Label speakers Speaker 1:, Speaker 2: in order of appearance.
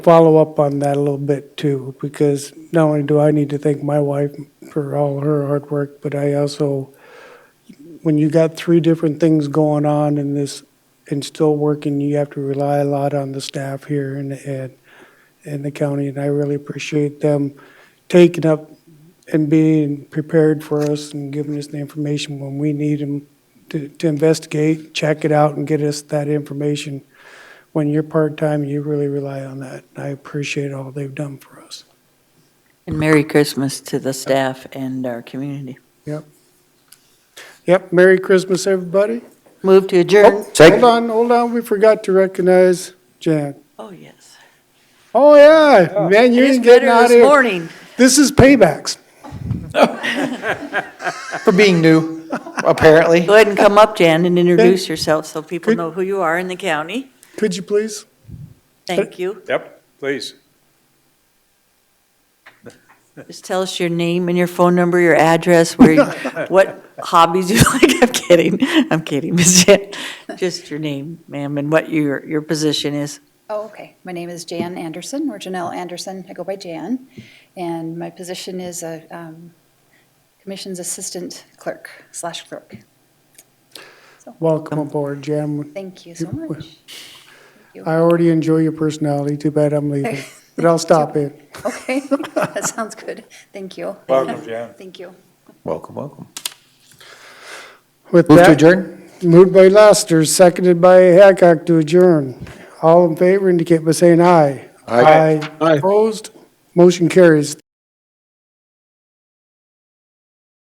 Speaker 1: follow up on that a little bit too, because not only do I need to thank my wife for all her hard work, but I also, when you got three different things going on in this, and still working, you have to rely a lot on the staff here and, and, and the county, and I really appreciate them taking up and being prepared for us and giving us the information when we need them to, to investigate, check it out, and get us that information when you're part-time, you really rely on that. I appreciate all they've done for us.
Speaker 2: And Merry Christmas to the staff and our community.
Speaker 1: Yep. Yep, Merry Christmas, everybody.
Speaker 2: Move to adjourn.
Speaker 1: Hold on, hold on, we forgot to recognize Jan.
Speaker 2: Oh, yes.
Speaker 1: Oh, yeah, man, you
Speaker 2: It is
Speaker 1: ain't getting
Speaker 2: better
Speaker 1: out of
Speaker 2: this
Speaker 1: here.
Speaker 2: morning.
Speaker 1: This is paybacks.
Speaker 3: for being new, apparently.
Speaker 2: Go ahead and come up, Jan, and introduce yourself so people
Speaker 1: Good.
Speaker 2: know who you are in the county.
Speaker 1: Could you please?
Speaker 2: Thank you.
Speaker 4: Yep, please.
Speaker 2: Just tell us your name and your phone number, your address, where, you- what hobbies you like. I'm kidding. I'm kidding, Ms. Jan. Just your name, ma'am, and what your, your position is.
Speaker 5: Oh, okay. My name is Jan Anderson, or Janelle Anderson. I go by Jan. And my position is a um, Commission's Assistant Clerk slash clerk.
Speaker 1: Welcome aboard, Jan.
Speaker 5: Thank you so much.
Speaker 1: I already enjoy your personality, too bad I'm leaving, but I'll stop in.
Speaker 5: Okay, that sounds good. Thank you.
Speaker 4: Welcome, Jan.
Speaker 5: Thank you.
Speaker 3: Welcome, welcome.
Speaker 1: With
Speaker 3: Move to
Speaker 1: that-
Speaker 3: adjourn?
Speaker 1: Moved by Lester, seconded by Hancock to adjourn. All in favor indicate by saying aye.
Speaker 3: Aye.
Speaker 1: Opposed? Motion carries.